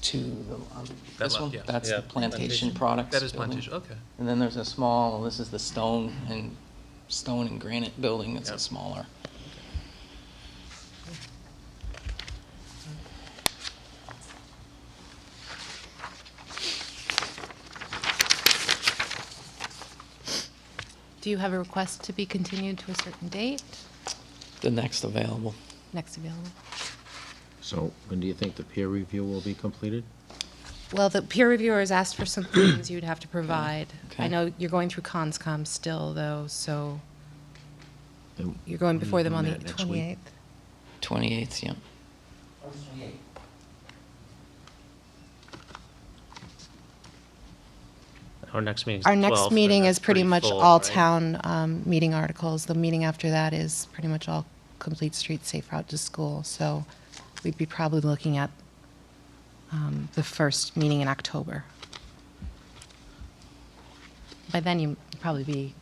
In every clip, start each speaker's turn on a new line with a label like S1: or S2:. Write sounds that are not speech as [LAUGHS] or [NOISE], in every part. S1: to the, um,
S2: That
S1: this
S2: left,
S1: one?
S2: yeah.
S1: That's the
S3: Yeah.
S1: plantation
S3: Plantation.
S1: products
S2: That is
S1: building.
S2: plantation, okay.
S1: And then there's a small, this is the stone and, stone and granite building, it's a
S2: Yep.
S1: smaller.
S4: Do you have a request to be continued to a certain date,
S1: The next available.
S4: next available?
S5: So when do you think the peer review will be completed?
S4: Well, the peer reviewers asked for some things you'd have to provide. I
S1: Okay.
S4: know you're going through CONSCOM still, though, so
S5: And
S4: you're going
S5: when
S4: before
S5: is
S4: them on the
S5: that, Mm, next week?
S4: 28th.
S1: Twenty-eighth, yeah.
S3: Our next meeting is
S4: Our
S3: 12th,
S4: next
S3: and
S4: meeting
S3: that's
S4: is pretty much
S3: full,
S4: all
S3: right?
S4: town um, meeting articles. The meeting after that is pretty much all complete street safe route to school. So we'd be probably looking at um, the first meeting in October. By then, you'd probably be.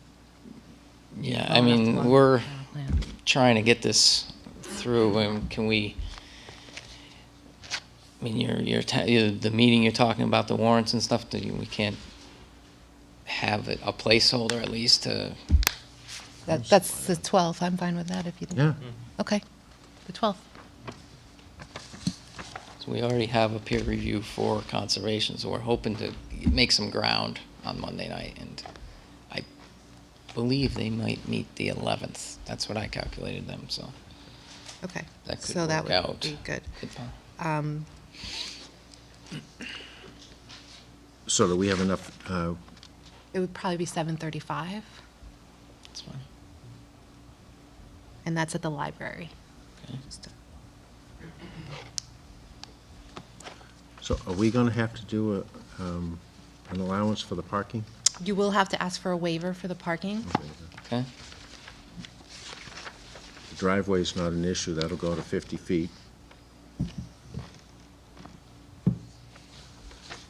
S1: Yeah,
S4: well
S1: I
S4: enough
S1: mean,
S4: along
S1: we're
S4: the plan.
S1: trying to get this through, and can we, I mean, your, your, ta- your- the meeting you're talking about, the warrants and stuff, do you- we can't have it- a placeholder at least to,
S4: That- That's the 12th. I'm fine with that if you.
S5: Yeah,
S4: Okay, the 12th.
S1: so we already have a peer review for conservation, so we're hoping to make some ground on Monday night, and I believe they might meet the eleventh, that's what I calculated them, so.
S4: Okay.
S1: That could
S4: So that
S1: work
S4: would
S1: out.
S4: be good.
S5: so do we have enough, uh,
S4: It would probably be 7:35,
S1: That's fine,
S4: and that's at the library.
S1: okay.
S5: so are we gonna have to do a, um, an allowance for the parking?
S4: You will have to ask for a waiver for the parking.
S1: Okay,
S5: The Driveway's not an issue, that'll go to fifty feet.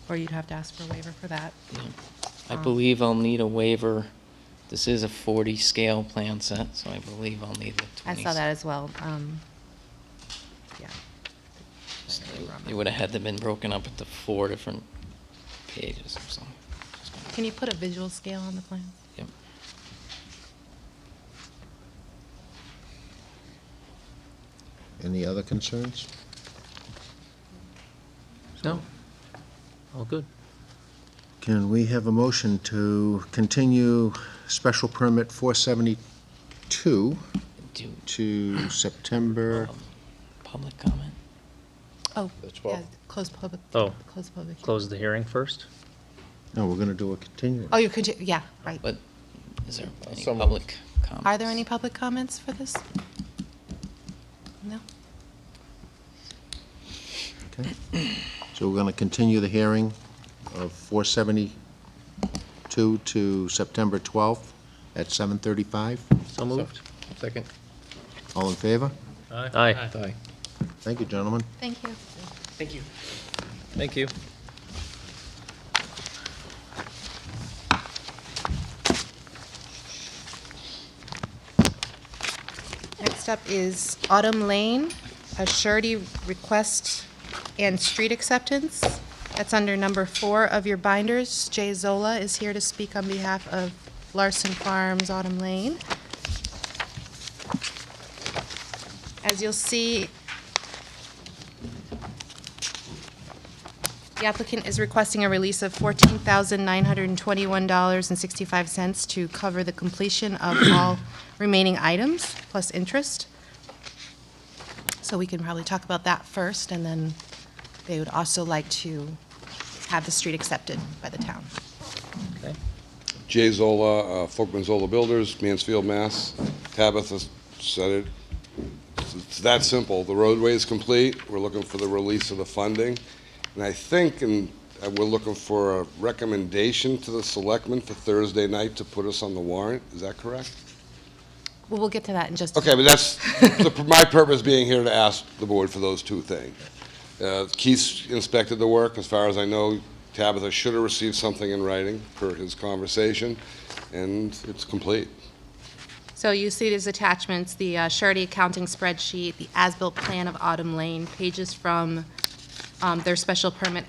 S4: Or you'd have to ask for a waiver for that.
S1: I believe I'll need a waiver, this is a forty scale plan set, so I believe I'll need the
S4: I
S1: twenty.
S4: saw that as well. um, Yeah.
S1: It would have had them been broken up into four different pages or something.
S4: Can you put a visual scale on the plan?
S1: Yep.
S5: Any other concerns?
S3: No? All good.
S5: Can we have a motion to continue special permit four seventy-two
S1: Do
S5: to September?
S1: public comment?
S4: Oh,
S5: The 12th.
S4: yeah, close public.
S3: Oh.
S4: Close public. hearing.
S3: Close the hearing first?
S5: No, we're gonna do a continuance.
S4: Oh, you could, ju- yeah, right.
S1: But is there any
S5: Someone-
S1: public comments?
S4: Are there any public comments for this? No?
S5: Okay. So we're going to continue the hearing of 472 to September 12th at 7:35.
S3: So moved?
S1: Second.
S5: All in favor?
S3: Aye.
S1: Aye.
S5: Thank you, gentlemen.
S4: Thank you.
S2: Thank you.
S3: Thank you.
S4: Next up is Autumn Lane, a surety request and street acceptance. That's under number four of your binders. Jay Zola is here to speak on behalf of Larson Farms Autumn Lane. As you'll see, the applicant is requesting a release of $14,921.65 to cover the completion of all remaining items, plus interest. So we can probably talk about that first, and then they would also like to have the street accepted by the town.
S3: Okay.
S6: Jay Zola, uh, Folkman Zola Builders, Mansfield, Mass. Tabitha said it. It's that simple. The roadway is complete. We're looking for the release of the funding. And I think, and uh, we're looking for a recommendation to the selectmen for Thursday night to put us on the warrant. Is that correct?
S4: Well, we'll get to that in just a
S6: Okay, but that's, the- [LAUGHS] my purpose being here to ask the board for those two things. Uh, Keith inspected the work, as far as I know, Tabitha should have received something in writing per his conversation, and it's complete.
S4: So you see these attachments, the uh, surety accounting spreadsheet, the as-built plan of Autumn Lane, pages from um, their special permit